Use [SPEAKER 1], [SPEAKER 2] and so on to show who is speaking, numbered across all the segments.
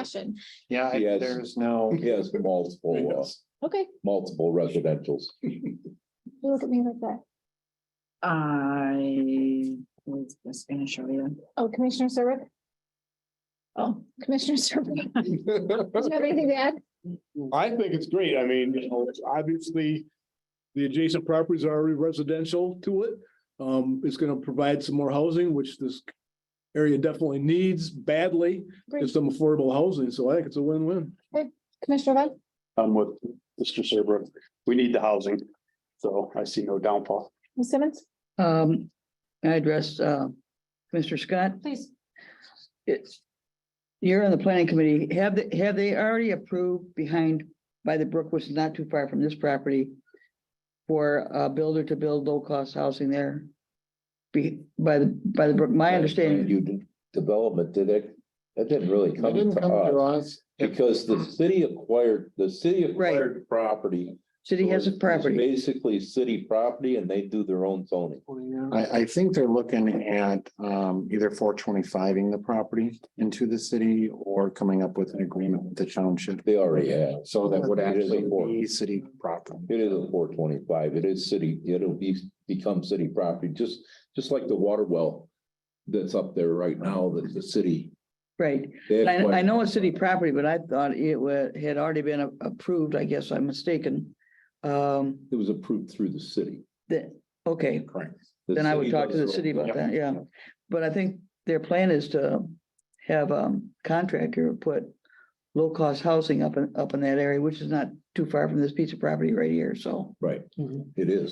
[SPEAKER 1] discussion.
[SPEAKER 2] Yeah, I-
[SPEAKER 3] Yes.
[SPEAKER 2] there's no.
[SPEAKER 3] He has multiple, uh,
[SPEAKER 1] Okay,
[SPEAKER 3] multiple residentials.
[SPEAKER 1] you look at me like that.
[SPEAKER 4] I was just gonna show you.
[SPEAKER 1] Oh, Commissioner Serbrook,
[SPEAKER 4] Oh.
[SPEAKER 1] Commissioner Serbrook, do you have anything to add?
[SPEAKER 5] I think it's great. I mean, you know, obviously, the adjacent properties are already residential to it. Um, it's gonna provide some more housing, which this area definitely needs badly,
[SPEAKER 1] Great.
[SPEAKER 5] There's some affordable housing, so I think it's a win-win.
[SPEAKER 1] Commissioner Vaughn?
[SPEAKER 2] I'm with Mr. Serbrook. We need the housing. So I see no downfall.
[SPEAKER 1] Ms. Simmons?
[SPEAKER 6] Um, I address, uh, Mr. Scott,
[SPEAKER 1] Please.
[SPEAKER 6] it's, you're on the planning committee, have, they have they already approved behind, by the brook, which is not too far from this property? For a builder to build low-cost housing there? Be, by the, by the brook, my understanding,
[SPEAKER 3] You did development, did it? That didn't really
[SPEAKER 7] They
[SPEAKER 3] come
[SPEAKER 7] didn't
[SPEAKER 3] to
[SPEAKER 7] come to
[SPEAKER 3] us
[SPEAKER 7] us.
[SPEAKER 3] because the city acquired, the city
[SPEAKER 6] Right.
[SPEAKER 3] acquired property.
[SPEAKER 6] city has a
[SPEAKER 3] It's
[SPEAKER 6] property,
[SPEAKER 3] Basically city property and they do their own zoning.
[SPEAKER 7] I, I think they're looking at um, either four twenty-fiving the property into the city or coming up with an agreement with the township.
[SPEAKER 3] They already have.
[SPEAKER 7] So that would
[SPEAKER 3] It is a
[SPEAKER 7] actually
[SPEAKER 3] four-
[SPEAKER 7] be city property.
[SPEAKER 3] It is a four twenty-five. It is city, it'll be, become city property, just, just like the water well that's up there right now that the city.
[SPEAKER 6] right?
[SPEAKER 3] they
[SPEAKER 6] I, I
[SPEAKER 3] acquired.
[SPEAKER 6] know it's city property, but I thought it wa, had already been a- approved, I guess I'm mistaken. Um,
[SPEAKER 3] It was approved through the city.
[SPEAKER 6] that, okay,
[SPEAKER 7] Correct.
[SPEAKER 3] The
[SPEAKER 6] Then I would
[SPEAKER 3] city
[SPEAKER 6] talk to
[SPEAKER 3] does
[SPEAKER 6] the
[SPEAKER 3] their
[SPEAKER 6] city
[SPEAKER 3] own-
[SPEAKER 6] about that, yeah. But I think their plan is to have a contractor put low-cost housing up in, up in that area, which is not too far from this piece of property right here, so.
[SPEAKER 3] Right, it is.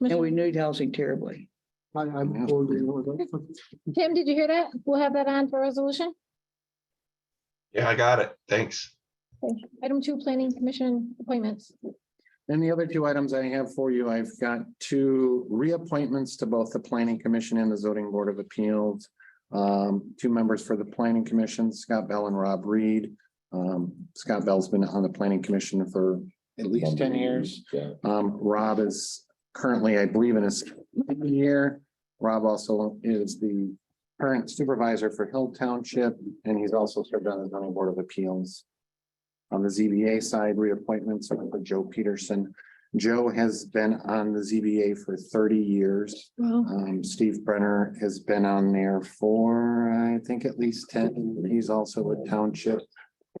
[SPEAKER 6] And we need housing terribly.
[SPEAKER 7] I, I'm.
[SPEAKER 1] Tim, did you hear that? We'll have that on for resolution.
[SPEAKER 8] Yeah, I got it. Thanks.
[SPEAKER 1] Item two, planning commission appointments.
[SPEAKER 7] And the other two items I have for you, I've got two reappointments to both the planning commission and the zoning board of appeals. Um, two members for the planning commission, Scott Bell and Rob Reed. Um, Scott Bell's been on the planning commission for at least ten years.
[SPEAKER 3] Yeah.
[SPEAKER 7] Um, Rob is currently, I believe, in his second year. Rob also is the current supervisor for Hill Township, and he's also served on the zoning board of appeals. On the ZBA side, reappointments are for Joe Peterson. Joe has been on the ZBA for thirty years.
[SPEAKER 1] Wow.
[SPEAKER 7] Um, Steve Brenner has been on there for, I think, at least ten. He's also a township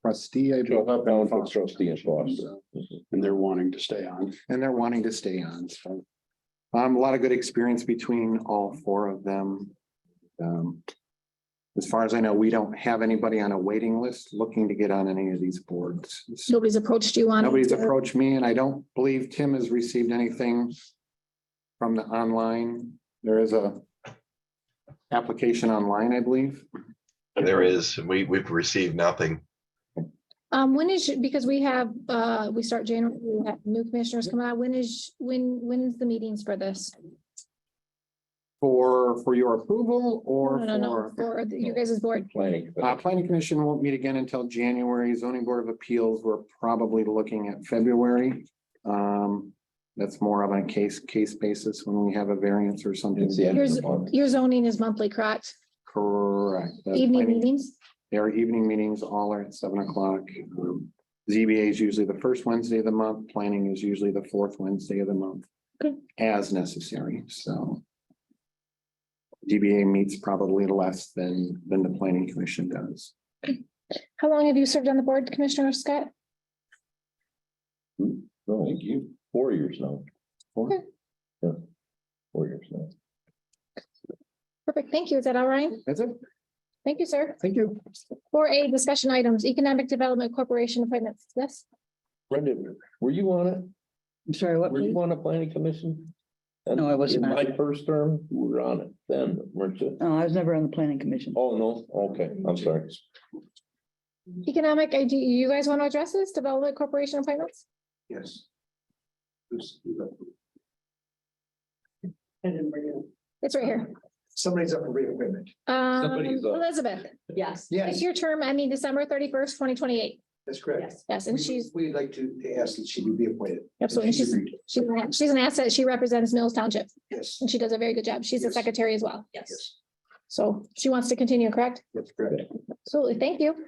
[SPEAKER 7] trustee, I believe.
[SPEAKER 3] Joe, Township trustee in Foster.
[SPEAKER 2] And they're wanting to stay on.
[SPEAKER 7] And they're wanting to stay on, so. Um, a lot of good experience between all four of them. Um. As far as I know, we don't have anybody on a waiting list looking to get on any of these boards. So
[SPEAKER 1] Nobody's approached you on. it?
[SPEAKER 7] Nobody's approached me and I don't believe Tim has received anything. From the online, there is a. Application online, I believe.
[SPEAKER 8] There is, we, we've received nothing.
[SPEAKER 1] Um, when is, your- because we have, uh, we start January, we have new commissioners come out. When is, when, when's the meetings for this?
[SPEAKER 7] For, for your approval or
[SPEAKER 1] No, no, no,
[SPEAKER 7] for.
[SPEAKER 1] for the- you guys' board.
[SPEAKER 3] Planning.
[SPEAKER 7] Uh, planning commission won't meet again until January. Zoning board of appeals, we're probably looking at February. Um, that's more of a case, case basis when we have a variance or something.
[SPEAKER 3] It's the end of
[SPEAKER 1] Here's-
[SPEAKER 3] the month.
[SPEAKER 1] Your zoning is monthly, correct?
[SPEAKER 7] Correct. That's
[SPEAKER 1] Evening
[SPEAKER 7] planning-
[SPEAKER 1] meetings?
[SPEAKER 7] Their evening meetings all are at seven o'clock. Um, ZBA is usually the first Wednesday of the month. Planning is usually the fourth Wednesday of the month.
[SPEAKER 1] Okay.
[SPEAKER 7] As necessary, so. DBA meets probably less than, than the planning commission does.
[SPEAKER 1] How long have you served on the board, Commissioner Scott?
[SPEAKER 3] No, thank you. Four years now.
[SPEAKER 1] Okay.
[SPEAKER 3] Yeah. Four years now.
[SPEAKER 1] Perfect, thank you. Is that all right?
[SPEAKER 7] That's it.
[SPEAKER 1] Thank you, sir.
[SPEAKER 7] Thank you.
[SPEAKER 1] Four A, discussion items, Economic Development Corporation appointments. Yes,
[SPEAKER 3] Brendan, were you on it?
[SPEAKER 6] I'm sorry, what?
[SPEAKER 3] Were you on a planning commission?
[SPEAKER 6] No, I wasn't
[SPEAKER 3] In
[SPEAKER 6] on
[SPEAKER 3] My first term, you were on it then, weren't you?
[SPEAKER 6] No, Oh, I was never on the planning commission.
[SPEAKER 3] Oh, no, okay, I'm sorry.
[SPEAKER 1] Economic, uh, do you guys want to address this, Development Corporation appointments?
[SPEAKER 2] Yes.
[SPEAKER 1] It's right here.
[SPEAKER 2] Somebody's up in reappointment.
[SPEAKER 1] Um,
[SPEAKER 3] Somebody's up.
[SPEAKER 1] Elizabeth,
[SPEAKER 4] Yes.
[SPEAKER 1] it's your term ending December thirty-first, twenty twenty-eight.
[SPEAKER 2] that's
[SPEAKER 1] Yes, and she's,
[SPEAKER 2] We'd like to ask that she be reappointed.
[SPEAKER 1] absolutely, and she's, she's an- she's an asset. She represents Mills Township
[SPEAKER 2] Yes,
[SPEAKER 1] and she does a very good job. She's the
[SPEAKER 2] Yes.
[SPEAKER 1] secretary as well.
[SPEAKER 4] Yes.
[SPEAKER 1] So she wants to continue, correct?
[SPEAKER 2] that's correct.
[SPEAKER 1] Absolutely, thank you.